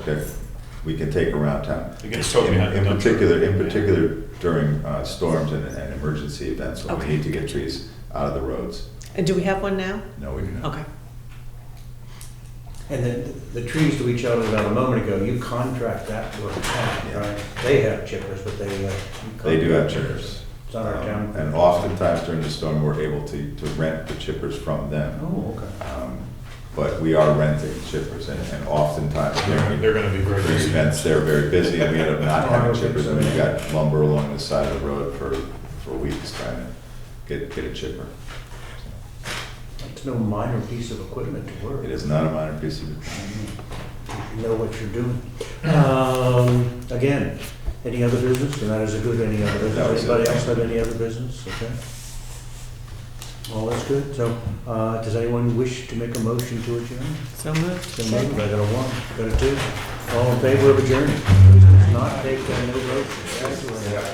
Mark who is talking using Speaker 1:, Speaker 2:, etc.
Speaker 1: that we can take around town.
Speaker 2: It gets towed
Speaker 1: In-
Speaker 2: behind the
Speaker 1: In
Speaker 2: dumpster.
Speaker 1: particular, in particular during uh, storms and, and emergency events, when we
Speaker 3: Okay.
Speaker 1: need to get trees out of the roads.
Speaker 3: And do we have one now?
Speaker 1: No, we do not.
Speaker 3: Okay.
Speaker 4: And the, the trees that we showed about a moment ago, you contract that to a town,
Speaker 1: Yeah.
Speaker 4: right? They have chippers, but they, uh. you
Speaker 1: They do have
Speaker 4: contract-
Speaker 1: chippers.
Speaker 4: It's on our
Speaker 1: Um,
Speaker 4: town.
Speaker 1: And oftentimes during the storm, we're able to, to rent the chippers from them.
Speaker 4: Oh, okay.
Speaker 1: Um, But we are renting chippers and, and oftentimes
Speaker 2: They're,
Speaker 1: during
Speaker 2: they're gonna be very
Speaker 1: during
Speaker 2: busy.
Speaker 1: events, they're very busy and we end up not
Speaker 4: Oh, I
Speaker 1: having
Speaker 4: would think
Speaker 1: chippers. I
Speaker 4: so,
Speaker 1: mean, you
Speaker 4: yeah.
Speaker 1: got lumber along the side of the road for, for weeks trying to get, get a chipper.
Speaker 4: It's no minor piece of equipment to work.
Speaker 1: It is not a minor piece of,
Speaker 4: You know what you're doing. Um, again, any other business? And that is a good any other
Speaker 1: That was
Speaker 4: business.
Speaker 1: it.
Speaker 4: Anybody else have any other business? Okay. All that's good. So, uh, does anyone wish to make a motion to adjourn?
Speaker 3: So moved.
Speaker 4: So moved. I got a one, got a two. All in favor of adjourning? Not take that, no vote. Thank you.